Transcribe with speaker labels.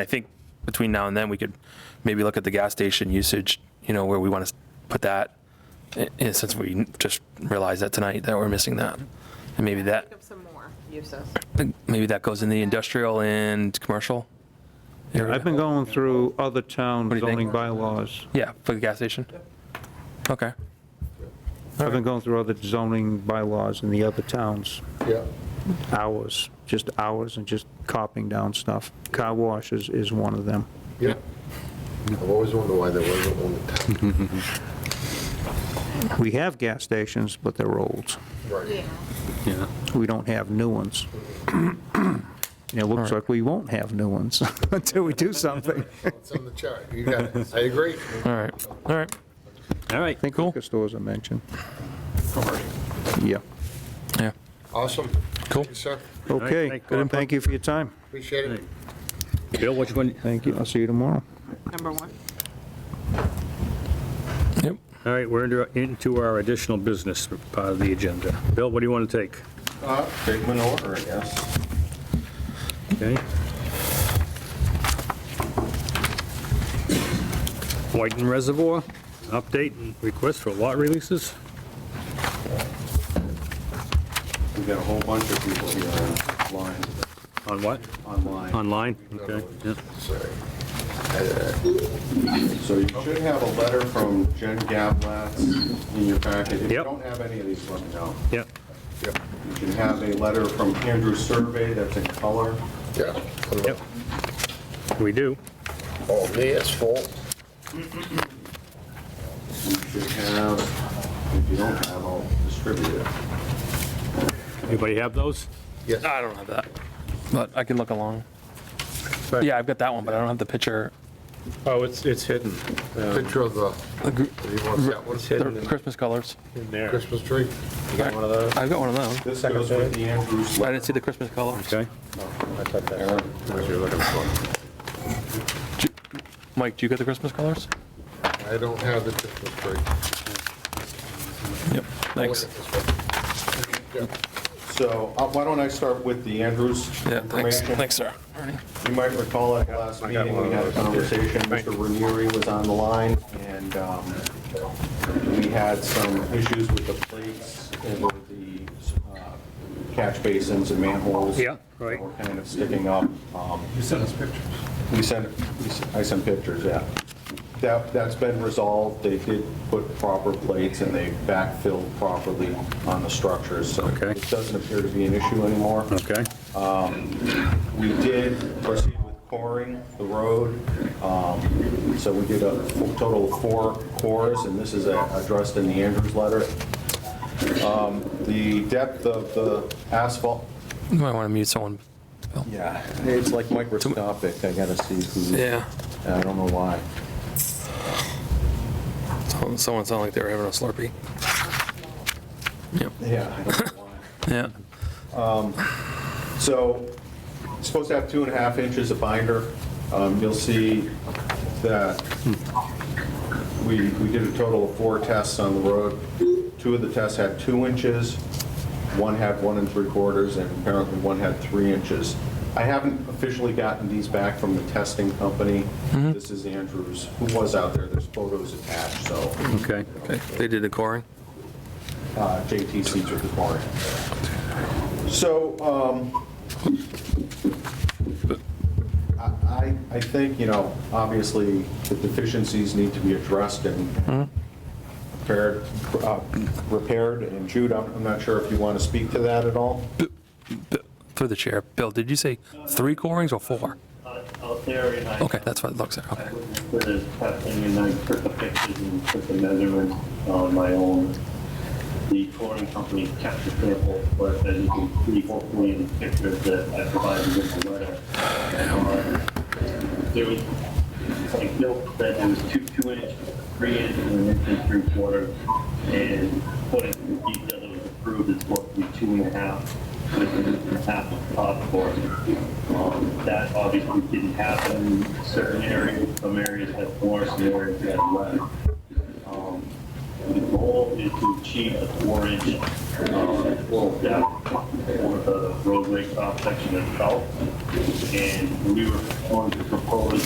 Speaker 1: I think between now and then, we could maybe look at the gas station usage, you know, where we want to put that, i- in- since we just realized that tonight, that we're missing that. And maybe that,
Speaker 2: Think of some more uses.
Speaker 1: maybe that goes in the industrial and commercial area.
Speaker 3: I've been going through other town
Speaker 1: What do you think?
Speaker 3: zoning bylaws.
Speaker 1: Yeah, for the gas station? Okay.
Speaker 3: I've been going through other zoning bylaws in the other towns,
Speaker 4: Yeah,
Speaker 3: hours, just hours and just copying down stuff. Car wash is, is one of them.
Speaker 4: yeah. I've always wondered why there wasn't one in town.
Speaker 3: We have gas stations, but they're old.
Speaker 4: Right.
Speaker 5: Yeah,
Speaker 3: We don't have new ones. And It looks like we won't have new ones until we do something. I
Speaker 4: It's on the chart. You got it. I agree.
Speaker 1: All right, all right.
Speaker 5: all right.
Speaker 3: think liquor stores are mentioned. Yeah.
Speaker 1: Yeah.
Speaker 4: Awesome.
Speaker 1: Cool.
Speaker 4: Thank you, sir.
Speaker 3: Okay,
Speaker 5: thank you.
Speaker 3: thank you for your time.
Speaker 4: Appreciate it.
Speaker 5: Bill, what you want,
Speaker 3: Thank you, I'll see you tomorrow.
Speaker 2: Number one.
Speaker 1: Yep.
Speaker 5: all right, we're into- into our additional business part of the agenda. Bill, what do you want to take?
Speaker 6: uh,
Speaker 4: Take them in order, I guess.
Speaker 5: Okay? Whiten Reservoir, update and request for lot releases?
Speaker 6: We've got a whole bunch of people here online,
Speaker 5: On what?
Speaker 6: online.
Speaker 5: Online? Okay, yeah.
Speaker 4: Sorry.
Speaker 6: So you should have a letter from Jen Gablatz in your packet. If you
Speaker 5: Yep.
Speaker 6: don't have any of these, let me know.
Speaker 5: Yeah.
Speaker 4: Yep,
Speaker 6: You can have a letter from Andrew Survey that's in color.
Speaker 4: yeah.
Speaker 5: Yep. We do.
Speaker 4: Oh, there's full.
Speaker 6: You should have, if you don't have, I'll distribute it.
Speaker 5: Anybody have those?
Speaker 4: Yes.
Speaker 1: I don't have that, but I can look along. Yeah, I've got that one, but I don't have the picture,
Speaker 7: Oh, it's, it's hidden
Speaker 4: Picture of the, you want that one?
Speaker 1: the Christmas colors.
Speaker 7: in there.
Speaker 4: Christmas tree?
Speaker 7: You got one of those?
Speaker 1: I've got one of those.
Speaker 6: This goes with the Andrews
Speaker 1: I
Speaker 6: letter.
Speaker 1: didn't see the Christmas colors.
Speaker 7: I
Speaker 5: Okay.
Speaker 7: thought that-
Speaker 6: Aaron, what you're looking for.
Speaker 1: Mike, do you get the Christmas colors?
Speaker 4: I don't have the Christmas tree.
Speaker 1: Yep. Thanks.
Speaker 6: So uh, why don't I start with the Andrews
Speaker 1: Yeah, thanks,
Speaker 6: information?
Speaker 1: thanks, sir.
Speaker 6: You might recall at last meeting, we had a conversation, Mr. Ranieri was on the line, and um, we had some issues with the plates and with the uh, catch basins and manholes.
Speaker 5: Yeah, right.
Speaker 6: that Were kind of sticking up. You sent us pictures. We sent, we sent- I sent pictures, yeah. That, that's been resolved, they did put proper plates and they backfilled properly on the structures, so
Speaker 5: Okay.
Speaker 6: it doesn't appear to be an issue anymore. Um,
Speaker 5: Okay.
Speaker 6: We did proceed with coring the road, um, so we did a f- total of four cores, and this is uh, addressed in the Andrews letter. Um, The depth of the asphalt,
Speaker 1: You might want to mute someone.
Speaker 6: yeah, it's like microscopic, I gotta see who,
Speaker 1: Yeah,
Speaker 6: I don't know why.
Speaker 1: someone someone sounded like they were having a Slurpee. Yep,
Speaker 6: Yeah, I don't know why.
Speaker 1: yeah.
Speaker 6: So, it's supposed to have two and a half inches of binder. Um, You'll see that we, we did a total of four tests on the road. Two of the tests had two inches, one had one and three quarters, and apparently one had three inches. I haven't officially gotten these back from the testing company. This is Andrews, who was out there, there's photos attached, so
Speaker 5: Okay.
Speaker 1: Okay, they did the coring.
Speaker 6: uh, JTC's required. So um, I, I- I think, you know, obviously, the deficiencies need to be addressed and repaired, uh, repaired, and Jude, I'm I'm not sure if you want to speak to that at all?
Speaker 1: Through the chair, Bill, did you say three corings or four?
Speaker 8: out there and I.
Speaker 1: Okay, that's what it looks like, okay.
Speaker 8: I was with his testing and I took the pictures and took the measurements on my own. The touring company kept the sample, but as you can see hopefully in the pictures that I provided with the letter. um, There was, like Bill said, there was two, two inch, three inch, and an inch and three quarters. And according to the detail that was approved, it's supposed to be two and a half, with an inch and a half of top for um, That obviously didn't happen in certain areas, some areas had more, some areas had less. Um, The goal is to achieve a four-inch, um, full depth for the roadway cross section itself. And we were going to propose